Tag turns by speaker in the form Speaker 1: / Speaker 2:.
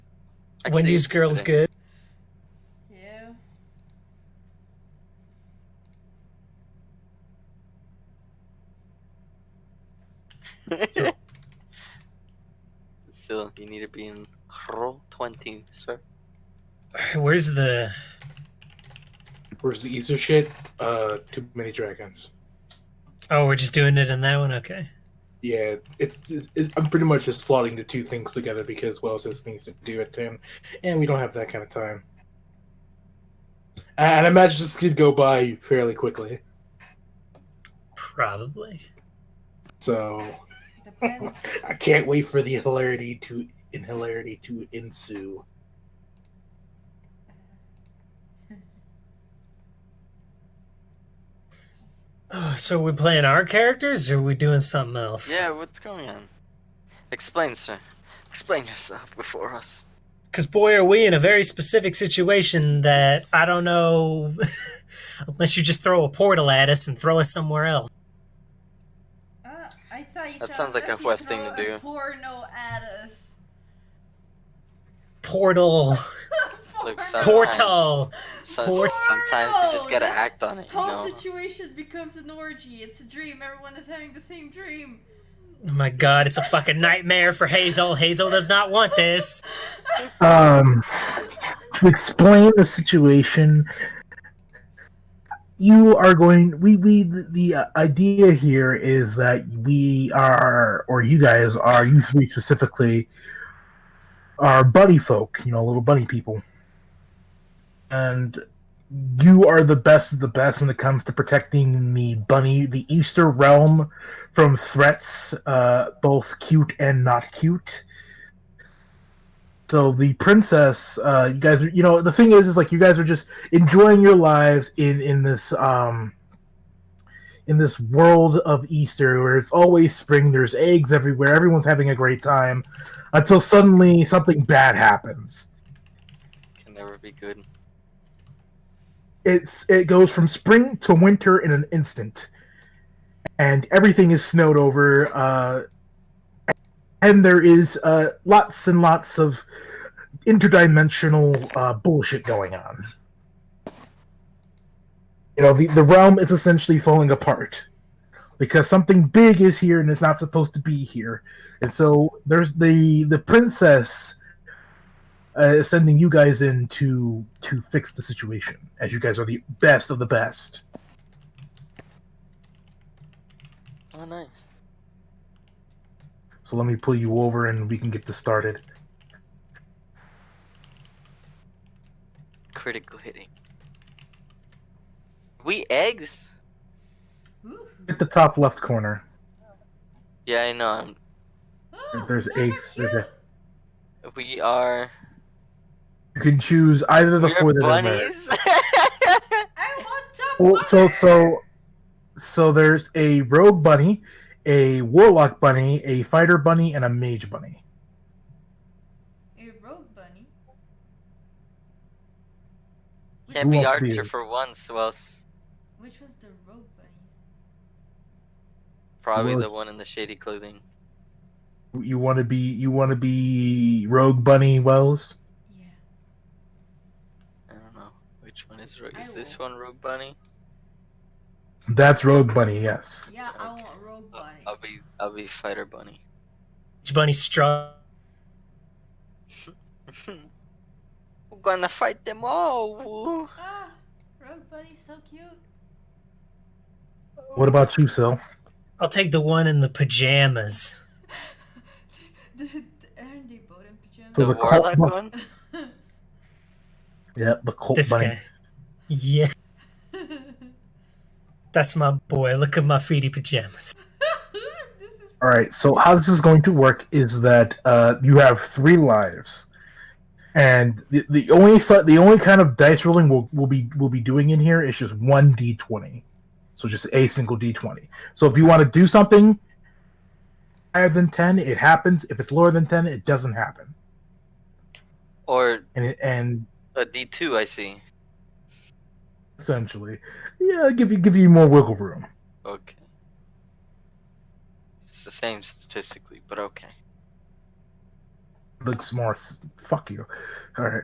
Speaker 1: Actually,
Speaker 2: Wendy's girl's good.
Speaker 3: Yeah.
Speaker 1: good. Still, you need to be in roll 20, sir.
Speaker 2: Where's the
Speaker 4: Where's the Easter shit? Uh, too many dragons.
Speaker 2: Oh, we're just doing it in that one? Okay.
Speaker 4: Yeah, it's, it's, it, I'm pretty much just slotting the two things together because what else is things to do at ten, and we don't have that kind of time. And I imagine this could go by fairly quickly.
Speaker 2: Probably.
Speaker 4: So
Speaker 3: Depends.
Speaker 4: I can't wait for the hilarity to in hilarity to ensue.
Speaker 2: Oh, so we're playing our characters or we doing something else?
Speaker 1: Yeah, what's going on? Explain, sir. Explain yourself before us.
Speaker 2: Because, boy, are we in a very specific situation that I don't know unless you just throw a portal at us and throw us somewhere else.
Speaker 3: Ah, I thought you
Speaker 1: That
Speaker 3: said
Speaker 1: sounds like a
Speaker 3: unless you
Speaker 1: web thing to
Speaker 3: throw a
Speaker 1: do.
Speaker 3: Porno at us.
Speaker 2: Portal.
Speaker 1: Look,
Speaker 3: Porno.
Speaker 1: son-
Speaker 2: Portal. Oh
Speaker 1: So,
Speaker 2: Poor-
Speaker 1: sometimes you just gotta
Speaker 3: This
Speaker 1: act on it, you
Speaker 3: Whole
Speaker 1: know?
Speaker 3: situation becomes an orgy. It's a dream. Everyone is having the same dream.
Speaker 2: Oh my god, it's a fucking nightmare for Hazel. Hazel does not want this.
Speaker 5: Um, to explain the situation, you are going. We we the, the uh, idea here is that we are, or you guys are, you three specifically, are bunny folk. You know, little bunny people, and you are the best of the best when it comes to protecting the bunny, the Easter realm, from threats, uh, both cute and not cute. So the princess, uh, you guys are, you know, the thing is, is like you guys are just enjoying your lives in in this um in this world of Easter where it's always spring, there's eggs everywhere, everyone's having a great time, until suddenly something bad happens.
Speaker 1: Can never be good.
Speaker 5: It's it goes from spring to winter in an instant, and everything is snowed over. Uh, and there is uh, lots and lots of interdimensional uh, bullshit going on. You know, the, the realm is essentially falling apart because something big is here and it's not supposed to be here. And so there's the the princess uh, is sending you guys in to to fix the situation, as you guys are the best of the best.
Speaker 1: Oh, nice.
Speaker 5: So let me pull you over and we can get this started.
Speaker 1: Critical hitting. We eggs?
Speaker 3: Ooh.
Speaker 5: At the top left corner,
Speaker 1: Yeah, I know. I'm,
Speaker 3: Oh,
Speaker 5: There's
Speaker 3: those
Speaker 5: eggs.
Speaker 3: are
Speaker 5: There's
Speaker 3: cute.
Speaker 1: we are.
Speaker 5: you can choose either the
Speaker 1: we
Speaker 5: four
Speaker 1: are
Speaker 5: that are there.
Speaker 1: bunnies?
Speaker 3: I want top
Speaker 5: Well, Oh, so
Speaker 3: butter.
Speaker 5: so so there's a rogue bunny, a warlock bunny, a fighter bunny, and a mage bunny.
Speaker 3: A rogue bunny. Which,
Speaker 1: Can't be
Speaker 5: wants
Speaker 1: Archer
Speaker 5: beer?
Speaker 1: for once, well, s-
Speaker 3: which was the rogue bunny?
Speaker 1: probably the
Speaker 5: Well-
Speaker 1: one in the shady clothing.
Speaker 5: You want to be you want to be rogue bunny Wells.
Speaker 3: Yeah.
Speaker 1: I don't know. Which one is Rogue?
Speaker 3: I
Speaker 1: Is this
Speaker 3: will-
Speaker 1: one Rogue Bunny?
Speaker 5: That's rogue bunny. Yes.
Speaker 3: Yeah, I
Speaker 1: Okay.
Speaker 3: want rogue
Speaker 1: I'll,
Speaker 3: bunny.
Speaker 1: I'll be I'll be Fighter Bunny.
Speaker 2: Bunny struck.
Speaker 1: We're gonna fight them all. woo.
Speaker 3: Ah, rogue bunny's so cute.
Speaker 5: What about you, Sil?
Speaker 2: I'll take the one in the pajamas.
Speaker 3: the, the, aren't they both in pajamas?
Speaker 5: So
Speaker 1: the
Speaker 5: the cult
Speaker 1: Warlock
Speaker 5: bu-
Speaker 1: one?
Speaker 5: Yeah, the cult
Speaker 2: This
Speaker 5: bunny.
Speaker 2: guy. Yeah, that's my boy. Look at my feety pajamas.
Speaker 3: this is
Speaker 5: All right. So how this is going to work is that uh, you have three lives, and the, the only si- the only kind of dice rolling we'll, we'll be we'll be doing in here is just one d twenty, so just a single d twenty. So if you want to do something higher than ten, it happens. If it's lower than ten, it doesn't happen.
Speaker 1: Or
Speaker 5: And it, and
Speaker 1: a D two? I see.
Speaker 5: essentially, yeah, give you give you more wiggle room.
Speaker 1: Okay. It's the same statistically, but okay.
Speaker 5: looks more. s- Fuck you. All right.